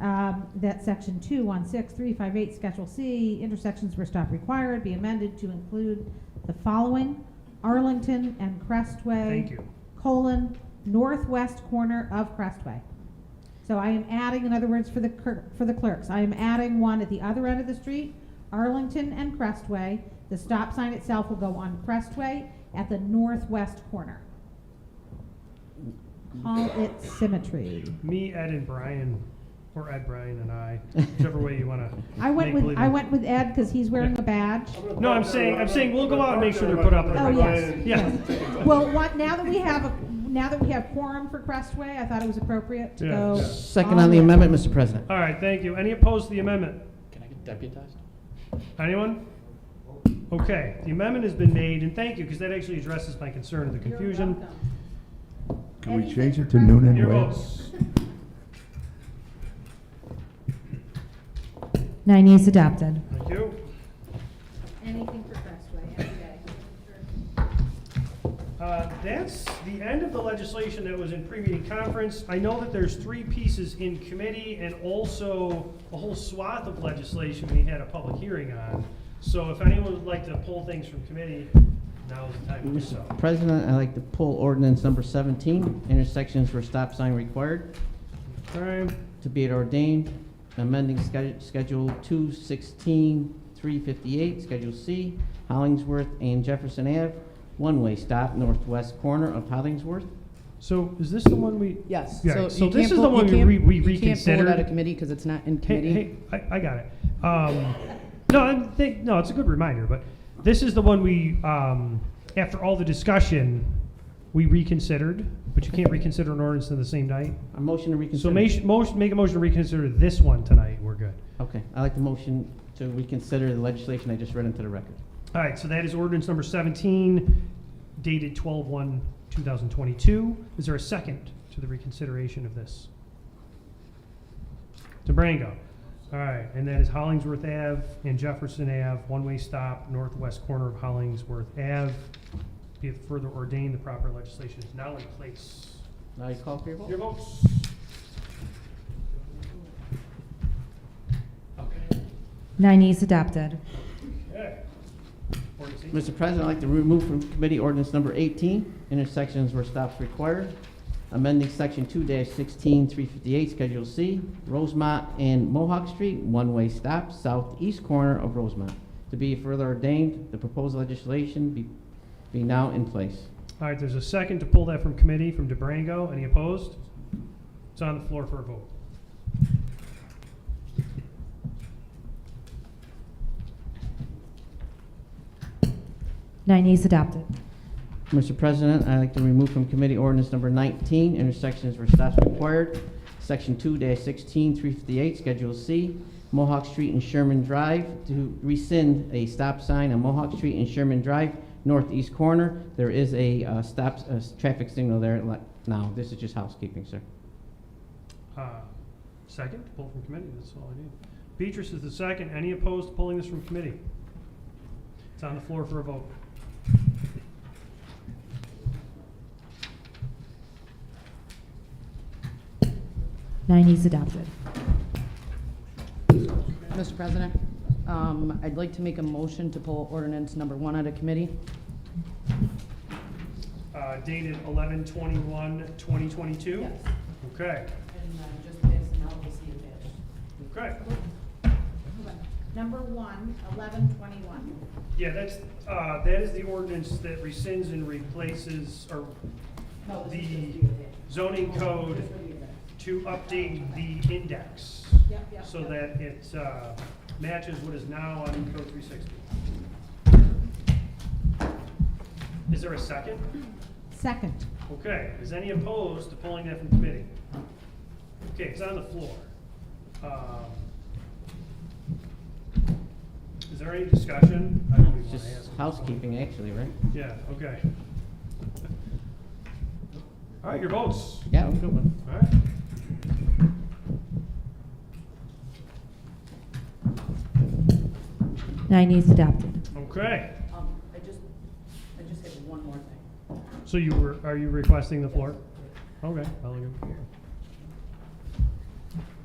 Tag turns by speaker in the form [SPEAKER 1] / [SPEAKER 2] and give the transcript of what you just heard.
[SPEAKER 1] um, that section two one six three five eight, Schedule C, intersections where stop required, be amended to include the following, Arlington and Crestway.
[SPEAKER 2] Thank you.
[SPEAKER 1] Colon, northwest corner of Crestway. So I am adding, in other words, for the clerk, for the clerks, I am adding one at the other end of the street, Arlington and Crestway. The stop sign itself will go on Crestway at the northwest corner. Call it symmetry.
[SPEAKER 2] Me, Ed, and Brian, or Ed, Brian, and I, whichever way you want to.
[SPEAKER 1] I went with, I went with Ed because he's wearing a badge.
[SPEAKER 2] No, I'm saying- I'm saying we'll go out and make sure they're put up.
[SPEAKER 1] Oh, yes.
[SPEAKER 2] Yeah.
[SPEAKER 1] Well, what, now that we have, a now that we have quorum for Crestway, I thought it was appropriate to
[SPEAKER 2] Yeah.
[SPEAKER 1] go.
[SPEAKER 3] Second on the
[SPEAKER 1] in.
[SPEAKER 3] amendment, Mr. President.
[SPEAKER 2] All right, thank you. Any opposed to the amendment?
[SPEAKER 4] Can I get deputized?
[SPEAKER 2] Anyone? Okay, the amendment has been made, and thank you, because that actually addresses my concern of the confusion.
[SPEAKER 5] Can we
[SPEAKER 1] Anything
[SPEAKER 5] change it
[SPEAKER 1] for
[SPEAKER 5] to noon
[SPEAKER 2] Your
[SPEAKER 5] anyway?
[SPEAKER 2] votes.
[SPEAKER 1] Nine E's adopted.
[SPEAKER 2] Thank you.
[SPEAKER 1] Anything for Crestway, every day.
[SPEAKER 2] Uh, That's the end of the legislation that was in pre-meeting conference. I know that there's three pieces in committee and also a whole swath of legislation we had a public hearing on. So if anyone would like to pull things from committee, now is the time to do so.
[SPEAKER 3] Mr. President, I'd like to pull ordinance number 17, intersections where stop sign required,
[SPEAKER 2] All right.
[SPEAKER 3] to be it ordained, amending Sched- Schedule 216, 358, Schedule C, Hollingsworth and Jefferson Ave, one-way stop northwest corner of Hollingsworth.
[SPEAKER 2] So is this the one we?
[SPEAKER 6] Yes.
[SPEAKER 2] Yeah,
[SPEAKER 6] So,
[SPEAKER 2] so
[SPEAKER 6] you
[SPEAKER 2] this
[SPEAKER 6] can't
[SPEAKER 2] is
[SPEAKER 6] pull-
[SPEAKER 2] the one
[SPEAKER 6] you
[SPEAKER 2] we
[SPEAKER 6] can't-
[SPEAKER 2] re- we
[SPEAKER 6] You can't pull
[SPEAKER 2] reconsidered.
[SPEAKER 6] it out of committee because it's not
[SPEAKER 2] Hey,
[SPEAKER 6] in committee.
[SPEAKER 2] hey, I, I got it. Um, no, I think, no, it's a good reminder, but this is the one we, um, after all the discussion, we reconsidered, but you can't reconsider an ordinance in the same night.
[SPEAKER 3] A motion to reconsider.
[SPEAKER 2] So make, motion, make a motion to reconsider this one tonight, we're good.
[SPEAKER 3] Okay, I'd like the motion to reconsider the legislation I just read into the record.
[SPEAKER 2] All right, so that is ordinance number seventeen dated twelve one, two thousand twenty-two. Is there a second to the reconsideration of this? DeBrango. All right, and that is Hollingsworth Ave and Jefferson Ave, one-way stop, northwest corner of Hollingsworth Ave. Be it further ordained, the proper legislation is now in place.
[SPEAKER 3] Now you call for your vote?
[SPEAKER 2] Your votes. Okay.
[SPEAKER 1] Nine E's adopted.
[SPEAKER 2] Okay. Ordinance eight-
[SPEAKER 3] Mr. President, I'd like to remove from committee ordinance number 18, intersections where stops required, amending section 2-16, 358, Schedule C, Rosemont and Mohawk Street, one-way stop, southeast corner of Rosemont. To be further ordained, the proposed legislation be be now in place.
[SPEAKER 2] All right, there's a second to pull that from committee from DeBrango. Any opposed? It's on the floor for a vote.
[SPEAKER 1] Nine E's adopted.
[SPEAKER 3] Mr. President, I'd like to remove from committee ordinance number 19, intersections where stops required, section 2-16, 358, Schedule C, Mohawk Street and Sherman Drive, to rescind a stop sign on Mohawk Street and Sherman Drive, northeast corner. There is a uh, stop, a s- traffic signal there li- now. This is just housekeeping, sir.
[SPEAKER 2] Uh, Second, to pull from committee, that's all I need. Beatrice is the second. Any opposed to pulling this from committee? It's on the floor for a vote.
[SPEAKER 1] Nine E's adopted.
[SPEAKER 6] Mr. President, um, I'd like to make a motion to pull ordinance number one out of committee.
[SPEAKER 2] Uh, Dated 11/21/2022? Okay,
[SPEAKER 6] And uh, just this, and I'll see
[SPEAKER 2] okay.
[SPEAKER 1] Number one, eleven twenty-one.
[SPEAKER 2] Yeah, that's, uh, that is the ordinance that rescinds and replaces, or the zoning code to update the index. So that it uh, matches what is now on code three sixty. Is there a second?
[SPEAKER 1] Second.
[SPEAKER 2] Okay, is any opposed to pulling that from committee? Okay, it's on the floor. Um, Is there any discussion? I don't even
[SPEAKER 3] It's
[SPEAKER 2] wanna
[SPEAKER 3] just
[SPEAKER 2] ask.
[SPEAKER 3] housekeeping, actually, right?
[SPEAKER 2] Yeah, okay. All right, your votes.
[SPEAKER 3] Yeah, I'm good one.
[SPEAKER 2] All right.
[SPEAKER 1] Nine E's adopted.
[SPEAKER 2] Okay,
[SPEAKER 6] Um, I just, I just have one more thing.
[SPEAKER 2] so you were, are you requesting the floor? Okay, I'll leave it here.